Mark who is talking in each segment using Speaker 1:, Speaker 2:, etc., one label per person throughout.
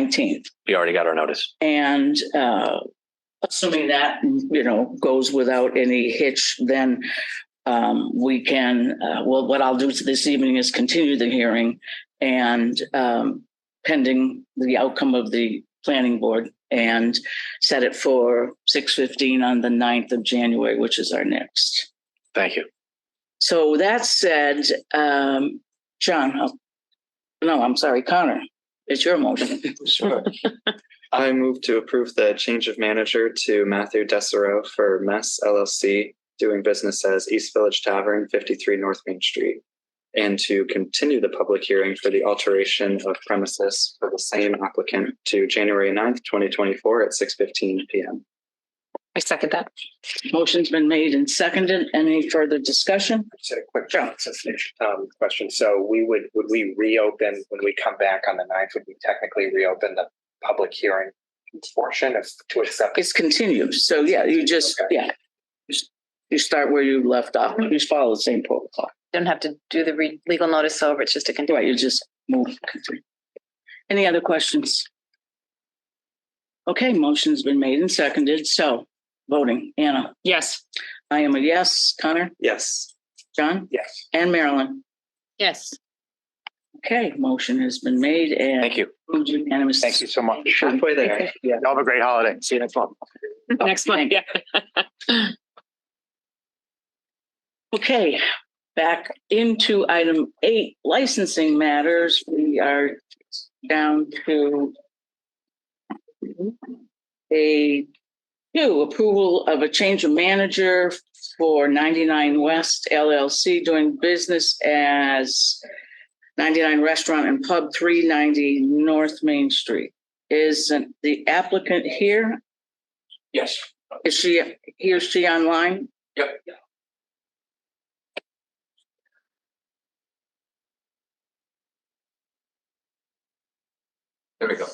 Speaker 1: nineteenth.
Speaker 2: We already got our notice.
Speaker 1: And uh, assuming that, you know, goes without any hitch, then um, we can, uh, well, what I'll do this evening is continue the hearing and um, pending the outcome of the planning board and set it for six fifteen on the 9th of January, which is our next.
Speaker 2: Thank you.
Speaker 1: So that said, um, John, I'll- no, I'm sorry, Connor, it's your motion.
Speaker 3: Sure. I move to approve the change of manager to Matthew Desereau for Mess LLC, doing business as East Village Tavern, 53 North Main Street, and to continue the public hearing for the alteration of premises for the same applicant to January 9th, 2024 at 6:15 PM.
Speaker 4: I second that.
Speaker 1: Motion's been made and seconded. Any further discussion?
Speaker 5: Just a quick um, question. So we would, would we reopen when we come back on the ninth? Would we technically reopen the public hearing portion of to accept?
Speaker 1: It's continued. So yeah, you just,
Speaker 5: Okay.
Speaker 1: yeah. You s- You start where you left off. You just follow the same protocol.
Speaker 4: Don't have to do the re- legal notice over. It's just a
Speaker 1: Right,
Speaker 4: continuation.
Speaker 1: you just move. continue. Any other questions? Okay, motion's been made and seconded. So voting, Anna,
Speaker 4: Yes.
Speaker 1: I am a yes. Connor,
Speaker 3: Yes.
Speaker 1: John,
Speaker 5: Yes.
Speaker 1: and Marilyn.
Speaker 4: Yes.
Speaker 1: Okay, motion has been made and.
Speaker 2: Thank you.
Speaker 1: Moved unanimously.
Speaker 5: Thank you so much.
Speaker 3: Halfway there.
Speaker 5: Yeah, have a great holiday. See you next month.
Speaker 4: Next one. Yeah.
Speaker 1: Okay, back into item eight, licensing matters. We are down to a new approval of a change of manager for 99 West LLC doing business as 99 Restaurant and Pub 390 North Main Street. Is the applicant here?
Speaker 6: Yes,
Speaker 1: Is she, he or she online?
Speaker 6: yep. There we go.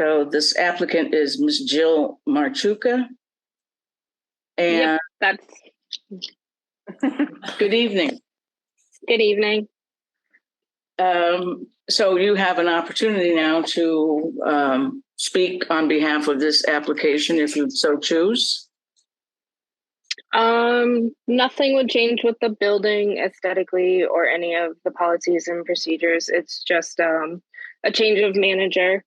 Speaker 1: So this applicant is Ms. Jill Marchuka. And
Speaker 7: Yep. That's
Speaker 1: good evening.
Speaker 7: good evening.
Speaker 1: Um, so you have an opportunity now to um speak on behalf of this application if you so choose.
Speaker 7: Um, nothing would change with the building aesthetically or any of the policies and procedures. It's just um, a change of manager.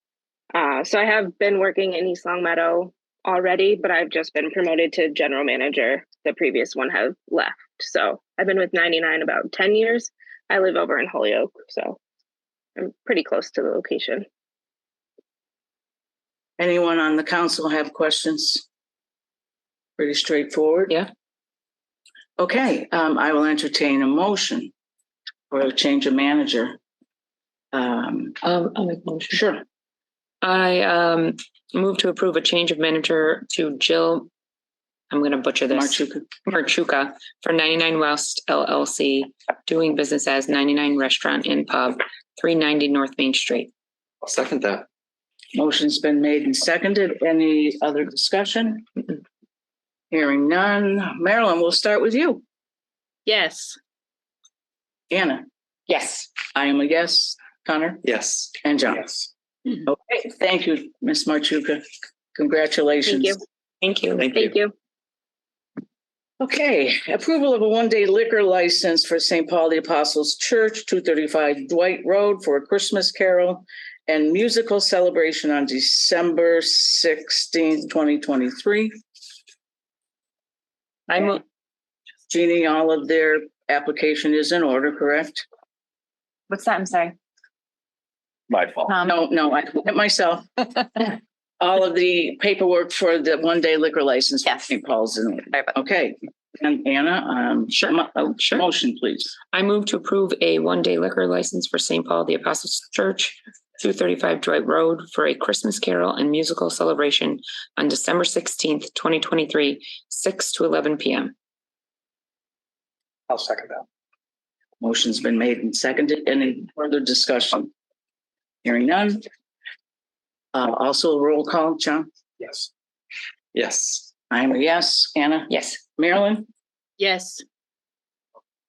Speaker 7: Uh, so I have been working in East Long Meadow already, but I've just been promoted to general manager. The previous one have left. So I've been with 99 about 10 years. I live over in Holyoke, so I'm pretty close to the location.
Speaker 1: Anyone on the council have questions? Pretty straightforward.
Speaker 4: Yeah.
Speaker 1: Okay, um, I will entertain a motion for a change of manager. Um,
Speaker 4: Um, I'll make a motion.
Speaker 1: sure.
Speaker 4: I um, move to approve a change of manager to Jill. I'm going to butcher this.
Speaker 1: Marchuka.
Speaker 4: Marchuka for 99 West LLC, doing business as 99 Restaurant and Pub, 390 North Main Street.
Speaker 3: I'll second that.
Speaker 1: Motion's been made and seconded. Any other discussion?
Speaker 4: Mm-mm.
Speaker 1: Hearing none. Marilyn, we'll start with you.
Speaker 4: Yes.
Speaker 1: Anna,
Speaker 4: Yes.
Speaker 1: I am a yes. Connor
Speaker 3: Yes.
Speaker 1: and John.
Speaker 5: Yes.
Speaker 1: Okay, thank you, Ms. Marchuka.
Speaker 7: Thank
Speaker 1: Congratulations.
Speaker 7: you.
Speaker 4: Thank you.
Speaker 3: Thank you.
Speaker 7: Thank you.
Speaker 1: Okay, approval of a one-day liquor license for St. Paul the Apostles Church, two thirty-five Dwight Road for a Christmas carol and musical celebration on December sixteenth, twenty twenty-three.
Speaker 4: I move.
Speaker 1: Jeannie, all of their application is in order, correct?
Speaker 8: What's that? I'm sorry.
Speaker 2: My fault.
Speaker 8: Um,
Speaker 1: No, no, I did it myself. All of the paperwork for the one-day liquor license. for
Speaker 8: Yes.
Speaker 1: St. Paul's in,
Speaker 8: sorry about that.
Speaker 1: okay. And Anna, um,
Speaker 4: Sure,
Speaker 1: mo- uh,
Speaker 4: sure.
Speaker 1: motion, please.
Speaker 4: I move to approve a one-day liquor license for St. Paul the Apostles Church, two thirty-five Dwight Road for a Christmas carol and musical celebration on December sixteenth, twenty twenty-three, six to eleven PM.
Speaker 5: I'll second that.
Speaker 1: Motion's been made and seconded. Any further discussion? Hearing none. Uh, also a roll call, John?
Speaker 5: Yes.
Speaker 3: Yes.
Speaker 1: I'm a yes. Anna?
Speaker 4: Yes.
Speaker 1: Marilyn?
Speaker 7: Yes.